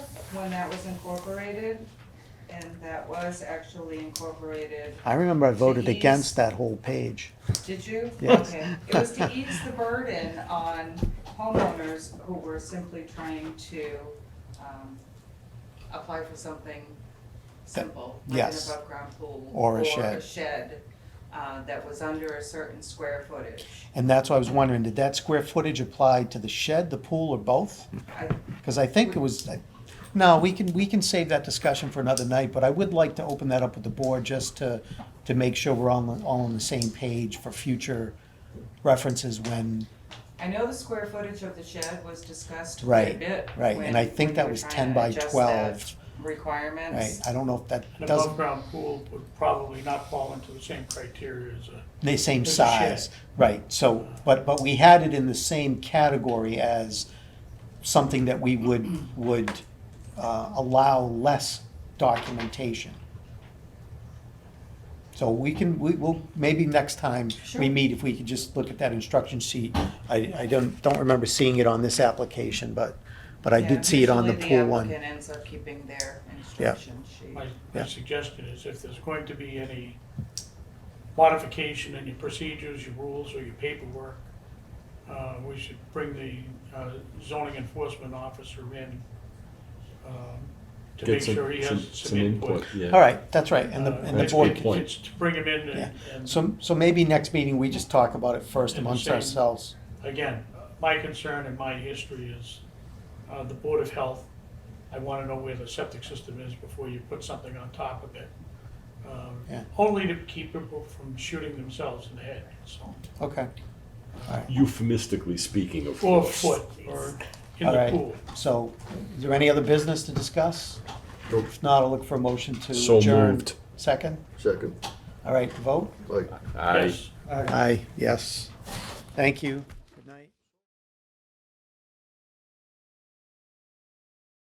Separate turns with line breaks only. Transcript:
when that was incorporated, and that was actually incorporated,
I remember I voted
ease-
against that whole page.
did you?
Yes.
Okay. It was to ease the burden on homeowners who were simply trying to, um, apply for something simple, like an
yes.
above-ground pool.
Or a
Or a
shed.
shed, uh, that was under a certain square footage.
And that's why I was wondering, did that square footage apply to the shed, the pool, or both?
I,
Because I think it was, I- no, we can, we can save that discussion for another night, but I would like to open that up with the board just to, to make sure we're all, on- all on the same page for future references when,
I know the square footage of the shed was discussed quite a
Right,
bit.
right, and I
when-
think
when
that
we were
was
trying
10
to
by
adjust that
12. right?
Requirements.
I don't know if that
An
doesn't,
above-ground pool would probably not fall into the same criteria as a,
the same
There's a shed.
size, right, so, but, but we had it in the same category as something that we would, would, uh, allow less documentation. So we can, we will, maybe next time
Sure.
we meet, if we could just look at that instruction sheet. I, I don't, don't remember seeing it on this application, but, but I
Yeah,
did see it on the
usually
pool one.
applicant ends up keeping their instruction sheet.
my,
Yeah.
my suggestion is if there's going to be any modification in your procedures, your rules, or your paperwork, uh, we should bring the uh, zoning enforcement officer in, um, to
Get
make
some-
sure he
some-
has
some
some input.
yeah.
All right, that's right, and the,
Uh,
and the
That's a
board
good
it's-
can-
point.
it's to bring him in
Yeah.
and- and.
So, so maybe next meeting, we just talk about it first
And the
amongst
same-
ourselves.
again, my concern and my history is uh, the Board of Health. I want to know where the septic system is before you put something on top of it. Um,
Yeah.
Only to keep people from shooting themselves in the head, so,
Okay,
Euphemistically speaking, of
or
course.
foot, or in
all
the
right.
pool.
So, is there any other business to discuss?
Nope.
If not, I'll look for a motion to
So
adjourn.
moved.
Second?
Second,
All right, vote?
like.
Aye.
Yes.
Aye, yes. Thank you.